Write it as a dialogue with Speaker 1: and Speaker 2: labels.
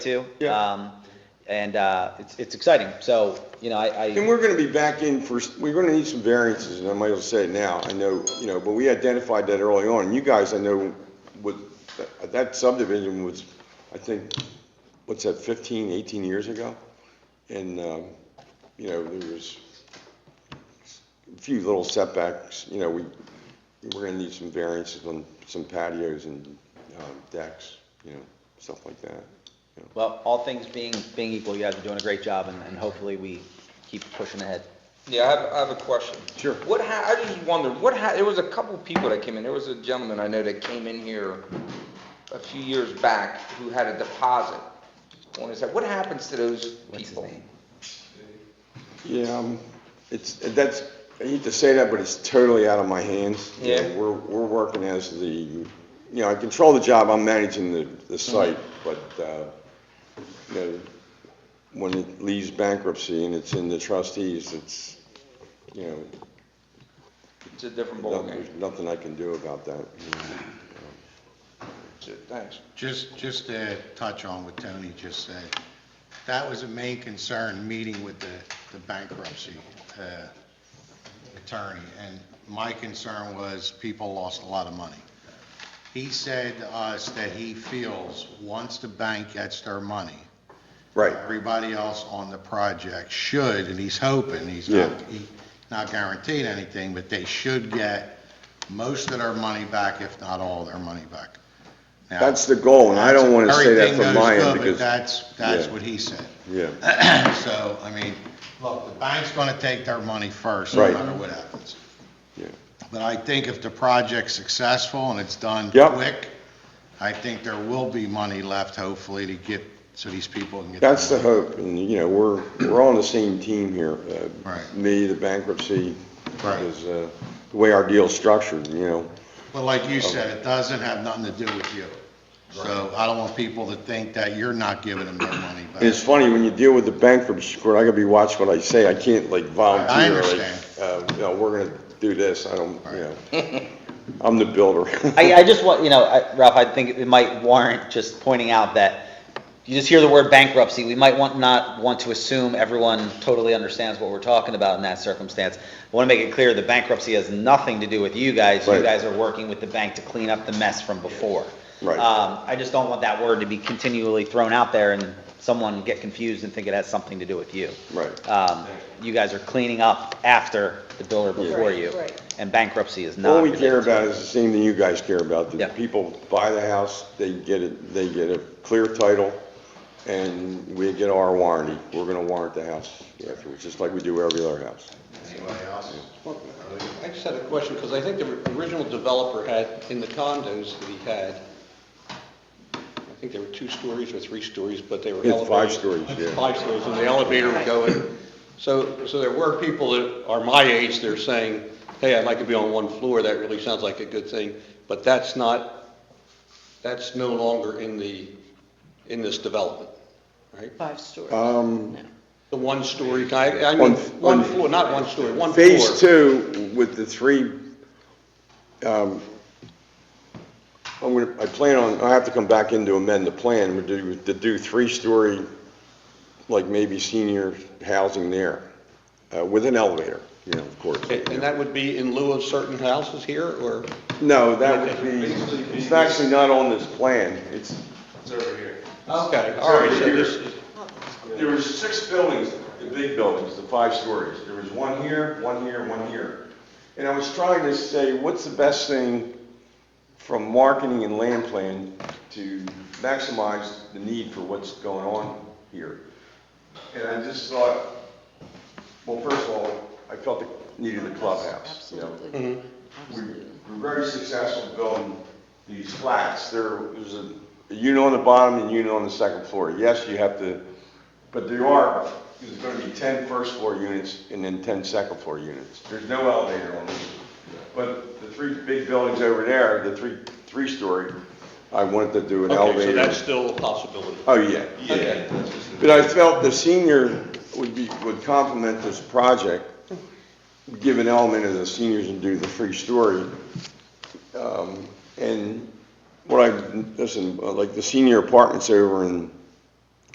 Speaker 1: too.
Speaker 2: Yeah.
Speaker 1: Um, and, uh, it's, it's exciting. So, you know, I,
Speaker 2: And
Speaker 1: I,
Speaker 2: we're gonna be back in for, we're gonna need some variances, and I might as well say it now, I know, you know, but we identified that early on, and you guys, I know, with, that subdivision was, I think, what's that, 15, 18 years ago? And, um, you know, there was a few little setbacks, you know, we, we're gonna need some variances on some patios and um, decks, you know, stuff like that. you know.
Speaker 1: well, all things being, being equal, you guys are doing a great job and, and hopefully we keep pushing ahead.
Speaker 3: Yeah, I have, I have a question.
Speaker 2: Sure.
Speaker 3: What ha, I just wondered, what ha, there was a couple people that came in, there was a gentleman I know that came in here a few years back who had a deposit on his, what happens to those
Speaker 1: What's his
Speaker 3: people?
Speaker 1: name?
Speaker 2: Yeah, um, it's, that's, I hate to say that, but it's totally out of my hands. You know,
Speaker 3: Yeah.
Speaker 2: We're, we're working as the, you know, I control the job, I'm managing the,
Speaker 3: Mm-hmm.
Speaker 2: the site, but, uh, you know, when it leaves bankruptcy and it's in the trustees, it's, you know,
Speaker 3: It's a different
Speaker 2: nothing-
Speaker 3: ballgame.
Speaker 2: there's nothing I can do about that. you know.
Speaker 3: So, Thanks.
Speaker 4: Just, just to touch on what Tony just said, that was a main concern, meeting with the, the bankruptcy uh, attorney. And my concern was people lost a lot of money. He said to us that he feels, once the bank gets their money,
Speaker 2: Right,
Speaker 4: everybody else on the project should, and he's hoping, he's not,
Speaker 2: Yeah.
Speaker 4: he not guaranteed anything, but they should get most of their money back, if not all their money back. Now-
Speaker 2: that's the goal, and I don't want to say that
Speaker 4: Everything
Speaker 2: from my end
Speaker 4: goes good, but
Speaker 2: because,
Speaker 4: That's, that's
Speaker 2: Yeah.
Speaker 4: what he said.
Speaker 2: yeah,
Speaker 4: So, I mean, look, the bank's gonna take their money first, no
Speaker 2: Right.
Speaker 4: matter what happens.
Speaker 2: yeah.
Speaker 4: But I think if the project's successful and it's done
Speaker 2: Yep.
Speaker 4: quick, I think there will be money left, hopefully, to get, so these people can get. their
Speaker 2: That's the
Speaker 4: money.
Speaker 2: hope, and, you know, we're, we're on the same team here. uh,
Speaker 4: Right.
Speaker 2: Me, the bankruptcy,
Speaker 4: Right.
Speaker 2: is uh, the way our deal's structured, you know.
Speaker 4: But like you said, it doesn't have nothing to do with you. So I don't want people to think that you're not giving them their money back.
Speaker 2: And it's funny, when you deal with the bankruptcy court, I gotta be watching what I say, I can't like
Speaker 4: I
Speaker 2: volunteer, like,
Speaker 4: understand.
Speaker 2: uh, you know, we're gonna do this, I don't, you know. I'm the builder.
Speaker 1: I, I just want, you know, I- Ralph, I think it might warrant just pointing out that you just hear the word bankruptcy, we might want, not want to assume everyone totally understands what we're talking about in that circumstance. I want to make it clear, the bankruptcy has nothing to do with you guys. You
Speaker 2: Right.
Speaker 1: guys are working with the bank to clean up the mess from before.
Speaker 2: Right.
Speaker 1: Um, I just don't want that word to be continually thrown out there and someone get confused and think it has something to do with you.
Speaker 2: Right.
Speaker 1: Um, you guys are cleaning up after the builder before
Speaker 5: Right,
Speaker 1: you.
Speaker 5: right.
Speaker 1: And bankruptcy is not.
Speaker 2: All we
Speaker 1: related
Speaker 2: care
Speaker 1: to
Speaker 2: about
Speaker 1: it.
Speaker 2: is the same thing you guys care about,
Speaker 1: Yeah.
Speaker 2: that people buy the house, they get it, they get a clear title, and we get our warranty, we're gonna warrant the house afterwards, just like we do every other house.
Speaker 4: Anybody else?
Speaker 6: I just had a question, because I think the original developer had, in the condos that he had, I think there were two stories or three stories, but they were
Speaker 2: It's
Speaker 6: elevated.
Speaker 2: five stories, yeah.
Speaker 6: Five stories, and the elevator would go in. So, so there were people that are my age, they're saying, hey, I'd like to be on one floor, that really sounds like a good thing, but that's not, that's no longer in the, in this development, right?
Speaker 5: Five stories.
Speaker 2: Um,
Speaker 6: The one-story, I, I
Speaker 2: One-
Speaker 6: mean, one floor, not one story, one floor.
Speaker 2: Phase two with the three, um, I'm gonna, I plan on, I have to come back in to amend the plan, we do, to do three-story, like maybe senior housing there, uh, with an elevator, you know, of course.
Speaker 6: And and that would be in lieu of certain houses here, or?
Speaker 2: No, that would be, it's actually not on this plan, it's,
Speaker 6: Okay, all right, so this is,
Speaker 2: There was six buildings, the big buildings, the five stories. There was one here, one here, one here. And I was trying to say, what's the best thing from marketing and land plan to maximize the need for what's going on here? And I just thought, well, first of all, I felt the need of the clubhouse, you know?
Speaker 6: mm-hmm.
Speaker 5: Absolutely.
Speaker 2: we
Speaker 5: Absolutely.
Speaker 2: were very successful building these flats. There was a a unit on the bottom and a unit on the second floor. Yes, you have to, but there are, there's gonna be 10 first floor units and then 10 second floor units. There's no elevator on this. But the three big buildings over there, the three, three-story, I wanted to do an
Speaker 6: okay, so
Speaker 2: elevator.
Speaker 6: that's still a possibility.
Speaker 2: Oh, yeah, yeah. But I felt the senior would be, would complement this project, give an element of the seniors and do the free story. Um, And what I, listen, like the senior apartments over in